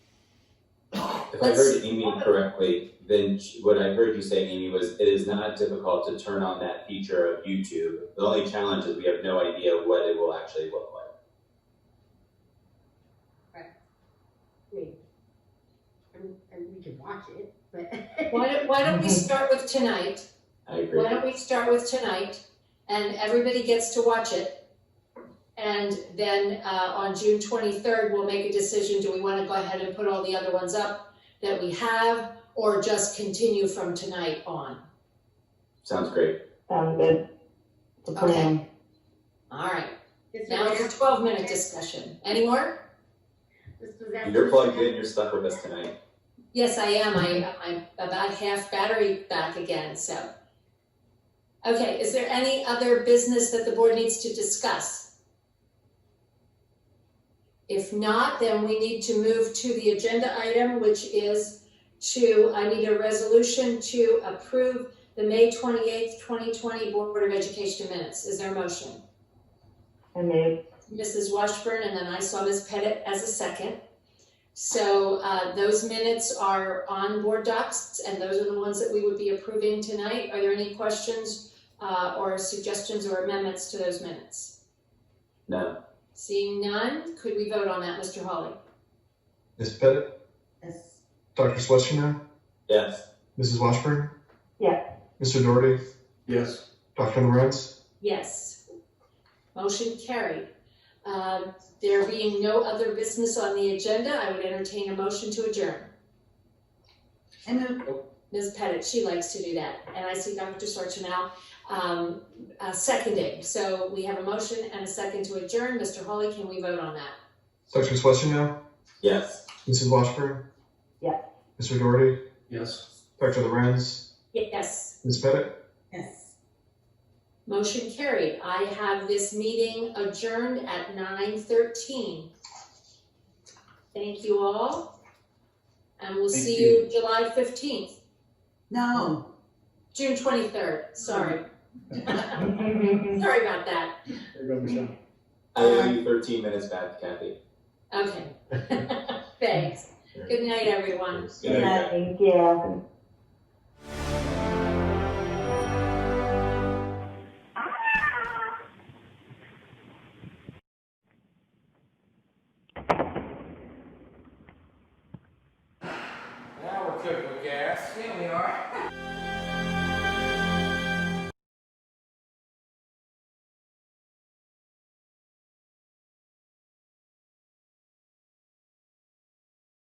If I heard Amy correctly, then sh- what I heard you say, Amy, was it is not difficult to turn on that feature of YouTube. The only challenge is we have no idea what it will actually look like. I mean, I'm, I'm, we could watch it, but. Why don't, why don't we start with tonight? I agree. Why don't we start with tonight? And everybody gets to watch it. And then, uh, on June twenty-third, we'll make a decision, do we wanna go ahead and put all the other ones up that we have? Or just continue from tonight on? Sounds great. Sound good. The plan. All right, This now was it's a after- twelve-minute discussion. Any more? This was after. You're plugged in, you're stuck with us tonight. Yes, I am. I, I'm about half battery back again, so. Okay, is there any other business that the board needs to discuss? If not, then we need to move to the agenda item, which is to, I need a resolution to approve the May twenty-eighth, twenty twenty Board of Education minutes. Is there a motion? I made. Mrs. Washburn, and then I saw Ms. Pettit as a second. So uh, those minutes are on board docs, and those are the ones that we would be approving tonight. Are there any questions uh, or suggestions or amendments to those minutes? No, Seeing none, could we vote on that, Mr. Hawley? Ms. Pettit, Yes. Dr. Schlesinger, yes, Mrs. Washburn? Yeah. Mr. Doherty, Yes, Dr. Lorenz, Yes. Motion carried. Um, There being no other business on the agenda, I would entertain a motion to adjourn. I moved, Ms. Pettit, she likes to do that, and I see Dr. Sarchinal, um, uh, seconding. So we have a motion and a second to adjourn. Mr. Hawley, can we vote on that? Dr. Schlesinger, yes. Mrs. Washburn? Yeah. Mr. Doherty, yes. Dr. Lorenz, Yes, Ms. Pettit, yes. motion carried. I have this meeting adjourned at nine thirteen. Thank you all, and we'll Thank see you July fifteenth, No. June twenty-third, sorry. Sorry about that. There you go, Michelle. I owe you 13 minutes back, Kathy. Okay, thanks. Good night, everyone. Good night. Thank you. Now we're cooking with gas. Yeah, we are.